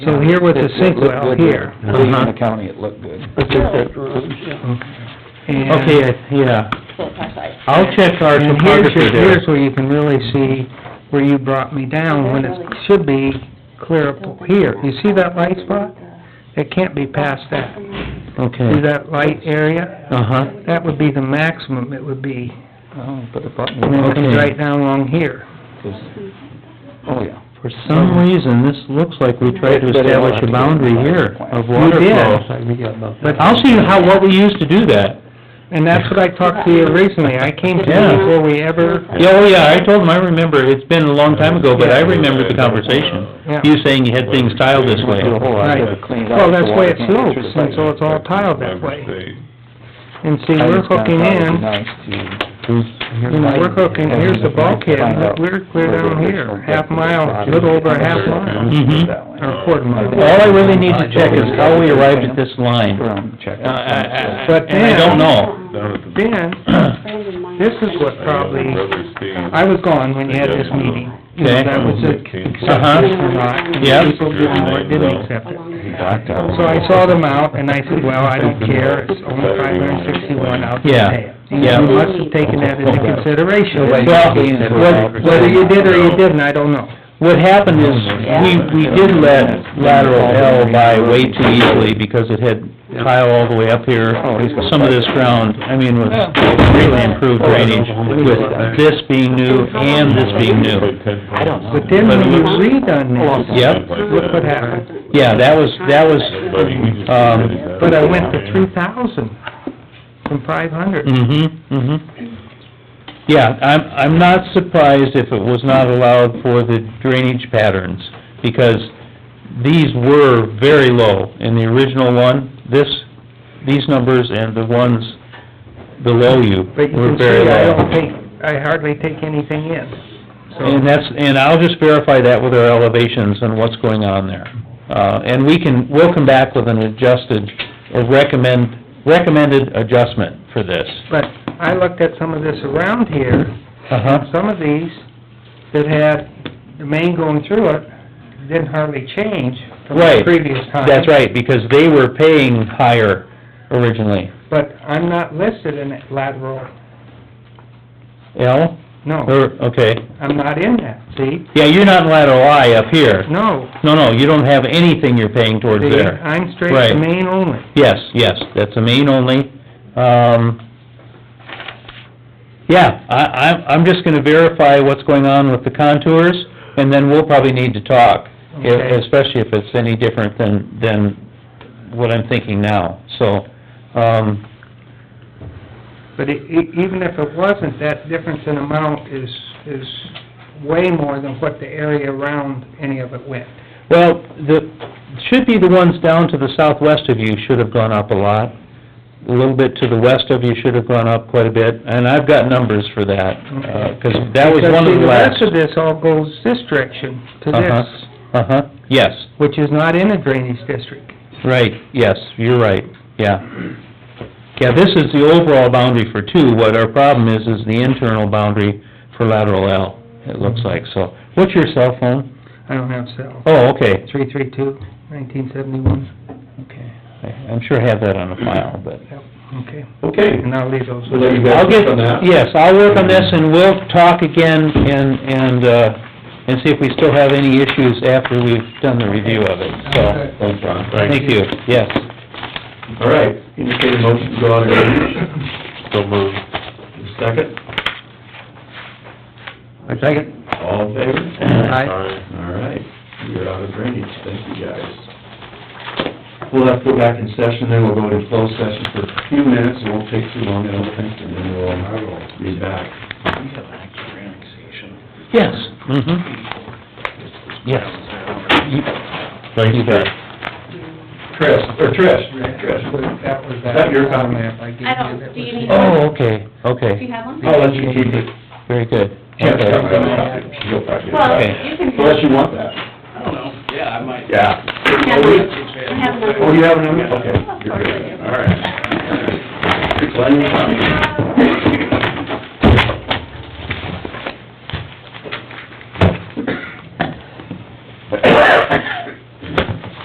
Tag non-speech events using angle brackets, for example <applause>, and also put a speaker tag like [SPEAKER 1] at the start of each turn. [SPEAKER 1] So here with the sink well here.
[SPEAKER 2] Leaving the
[SPEAKER 1] Uh-huh.
[SPEAKER 2] county, it looked good.
[SPEAKER 1] I think that- And-
[SPEAKER 3] Okay, I- yeah,
[SPEAKER 4] Both our sides.
[SPEAKER 3] I'll check our
[SPEAKER 1] And here's,
[SPEAKER 3] topography
[SPEAKER 1] your-
[SPEAKER 3] there.
[SPEAKER 1] here's where you can really see where you brought me down, when it should be clear up here. You see that light spot? It can't be past that. See
[SPEAKER 3] Okay,
[SPEAKER 1] that light area?
[SPEAKER 3] uh-huh,
[SPEAKER 1] That would be the maximum it would be,
[SPEAKER 2] Oh, but it brought me,
[SPEAKER 1] and then it comes
[SPEAKER 3] Okay.
[SPEAKER 1] right down along here.
[SPEAKER 2] oh, yeah.
[SPEAKER 3] for some reason, this looks like we tried to
[SPEAKER 2] But it'll
[SPEAKER 3] establish
[SPEAKER 2] have to
[SPEAKER 3] a
[SPEAKER 2] be
[SPEAKER 3] boundary
[SPEAKER 2] on the
[SPEAKER 3] here
[SPEAKER 2] plan.
[SPEAKER 3] of
[SPEAKER 2] We
[SPEAKER 3] water
[SPEAKER 1] did.
[SPEAKER 3] flow.
[SPEAKER 1] But
[SPEAKER 3] I'll see how, what we used to do that.
[SPEAKER 1] And that's what I talked to you recently, I came to
[SPEAKER 3] Yeah.
[SPEAKER 1] you before we ever,
[SPEAKER 3] Yeah, oh yeah, I told him, I remember, it's been a long time ago, but I remember the
[SPEAKER 1] Yeah.
[SPEAKER 3] conversation. You saying you had things tiled this way.
[SPEAKER 2] Do a whole lot of it, clean it up.
[SPEAKER 1] Well,
[SPEAKER 2] so
[SPEAKER 1] that's
[SPEAKER 2] water
[SPEAKER 1] why it
[SPEAKER 2] can't get
[SPEAKER 1] slopes,
[SPEAKER 2] through the
[SPEAKER 1] and
[SPEAKER 2] pipe.
[SPEAKER 1] so it's all tiled that way. and see,
[SPEAKER 2] I
[SPEAKER 1] we're
[SPEAKER 2] just kinda
[SPEAKER 1] hooking
[SPEAKER 2] thought it'd be
[SPEAKER 1] in,
[SPEAKER 2] nice to-
[SPEAKER 1] you know, we're hooking, here's the bulkhead,
[SPEAKER 2] Find
[SPEAKER 1] look,
[SPEAKER 2] out
[SPEAKER 1] we're
[SPEAKER 2] where
[SPEAKER 1] clear
[SPEAKER 2] the
[SPEAKER 1] down
[SPEAKER 2] original
[SPEAKER 1] here, half
[SPEAKER 2] depth of the
[SPEAKER 1] mile,
[SPEAKER 2] property
[SPEAKER 1] little over a
[SPEAKER 2] is.
[SPEAKER 1] half mile. Mm-hmm.
[SPEAKER 3] Mhm.
[SPEAKER 2] That way.
[SPEAKER 1] Or a quarter mile.
[SPEAKER 3] All I really need to check is how we arrived at this line.
[SPEAKER 2] From check.
[SPEAKER 3] Uh, I- I-
[SPEAKER 1] But
[SPEAKER 3] and I don't know.
[SPEAKER 5] Down at the-
[SPEAKER 1] Then, <coughs> this is what probably, I was gone when you had this meeting, you know,
[SPEAKER 3] Okay.
[SPEAKER 1] that was it.
[SPEAKER 3] Uh-huh. Yeah.
[SPEAKER 1] People didn't, know it, didn't accept it.
[SPEAKER 2] He backed out.
[SPEAKER 1] So I saw them out, and I said, well, I don't care, it's only five hundred and sixty-one out
[SPEAKER 3] Yeah,
[SPEAKER 1] there.
[SPEAKER 3] yeah.
[SPEAKER 1] You must have taken that into consideration.
[SPEAKER 2] Well,
[SPEAKER 1] Whether- Whether you did or you didn't, I don't know.
[SPEAKER 3] What happened is, we, we did let lateral L by way too easily because it had tile all the way up here.
[SPEAKER 1] Oh,
[SPEAKER 3] Some of this ground, I mean, was really
[SPEAKER 1] Oh,
[SPEAKER 3] improved drainage with this being new and this being new.
[SPEAKER 5] I don't
[SPEAKER 1] But then when you redone this,
[SPEAKER 3] Yep,
[SPEAKER 1] look what happened.
[SPEAKER 3] yeah, that was, that was, uh,
[SPEAKER 5] Um,
[SPEAKER 1] But I went to three thousand from five hundred.
[SPEAKER 3] mm-hmm, mm-hmm. Yeah, I'm, I'm not surprised if it was not allowed for the drainage patterns, because these were very low in the original one. This, these numbers and the ones below you
[SPEAKER 1] But you
[SPEAKER 3] were
[SPEAKER 1] can
[SPEAKER 3] very
[SPEAKER 1] see I
[SPEAKER 3] low.
[SPEAKER 1] don't take, I hardly take anything in.
[SPEAKER 3] And that's, and I'll just verify that with our elevations and what's going on there. Uh, and we can, we'll come back with an adjusted, or recommend, recommended adjustment for this.
[SPEAKER 1] But I looked at some of this around here,
[SPEAKER 3] Uh-huh.
[SPEAKER 1] some of these that had the main going through it didn't hardly change from the
[SPEAKER 3] Right.
[SPEAKER 1] previous time.
[SPEAKER 3] That's right, because they were paying higher originally.
[SPEAKER 1] But I'm not listed in that lateral,
[SPEAKER 3] L,
[SPEAKER 1] no,
[SPEAKER 3] or, okay.
[SPEAKER 1] I'm not in that, see?
[SPEAKER 3] Yeah, you're not in lateral I up here.
[SPEAKER 1] No,
[SPEAKER 3] No, no, you don't have anything you're paying towards
[SPEAKER 1] see,
[SPEAKER 3] there.
[SPEAKER 1] I'm straight to
[SPEAKER 3] Right.
[SPEAKER 1] main only.
[SPEAKER 3] Yes, yes, that's a main only. Um, yeah, I, I'm, I'm just gonna verify what's going on with the contours, and then we'll probably need to talk, e-
[SPEAKER 1] Okay.
[SPEAKER 3] especially if it's any different than, than what I'm thinking now, so, um,
[SPEAKER 1] But e- e- even if it wasn't, that difference in amount is, is way more than what the area around any of it went.
[SPEAKER 3] Well, the, should be the ones down to the southwest of you should have gone up a lot. A little bit to the west of you should have gone up quite a bit, and I've got numbers for that, uh, 'cause that was
[SPEAKER 1] Because,
[SPEAKER 3] one of
[SPEAKER 1] see,
[SPEAKER 3] the last.
[SPEAKER 1] rest of this all goes this direction to
[SPEAKER 3] Uh-huh.
[SPEAKER 1] this,
[SPEAKER 3] Uh-huh, yes,
[SPEAKER 1] which is not in a drainage district.
[SPEAKER 3] right, yes, you're right, yeah. Yeah, this is the overall boundary for two, what our problem is, is the internal boundary for lateral L, it looks like, so. What's your cell phone?
[SPEAKER 1] I don't have cell.
[SPEAKER 3] Oh, okay,
[SPEAKER 1] Three three two, nineteen seventy-one,
[SPEAKER 3] okay, I- I'm sure I have that on a file, but.
[SPEAKER 1] yep, okay.
[SPEAKER 6] Okay,
[SPEAKER 1] And I'll leave those.
[SPEAKER 6] so there you go.
[SPEAKER 3] I'll get,
[SPEAKER 6] On that.
[SPEAKER 3] yes, I'll work on this and we'll talk again and, and, uh, and see if we still have any issues after we've done the review of it, so.
[SPEAKER 6] Thanks, Ron.
[SPEAKER 3] Thank you, yes.
[SPEAKER 6] All right, indicate a motion to go out of drainage.
[SPEAKER 5] So moved.
[SPEAKER 6] Second?
[SPEAKER 2] I take it.
[SPEAKER 6] All in favor?
[SPEAKER 3] Aye.
[SPEAKER 6] All right, you're out of drainage, thank you guys. We'll have to go back in session, then we'll go into closed session for a few minutes, it won't take too long, I don't think, and then we'll be back.
[SPEAKER 3] Yes. Mm-hmm. Yes.
[SPEAKER 5] Thanks,
[SPEAKER 3] You bet.
[SPEAKER 5] Chris.
[SPEAKER 6] Trish, or Trish, Trish.
[SPEAKER 1] That was
[SPEAKER 6] Is that your comment?
[SPEAKER 1] map I gave you.
[SPEAKER 4] I don't-
[SPEAKER 1] that
[SPEAKER 4] do
[SPEAKER 1] was-
[SPEAKER 4] you need-
[SPEAKER 3] Oh, okay,
[SPEAKER 4] Do you
[SPEAKER 3] okay,
[SPEAKER 4] have one?
[SPEAKER 6] I'll let you keep it.
[SPEAKER 3] very good.
[SPEAKER 6] Chance,
[SPEAKER 3] Okay.
[SPEAKER 6] I'm gonna have to- she'll probably get it
[SPEAKER 4] Well,
[SPEAKER 6] back.
[SPEAKER 4] you can.
[SPEAKER 6] Unless you want that. I don't know, yeah, Oh, I might. Yeah.
[SPEAKER 4] Have one. I have one.
[SPEAKER 6] Oh, you have another? Okay.
[SPEAKER 4] Of
[SPEAKER 6] You're
[SPEAKER 4] course I
[SPEAKER 6] good.
[SPEAKER 4] do.
[SPEAKER 6] All right. Well, you're fine. <coughs>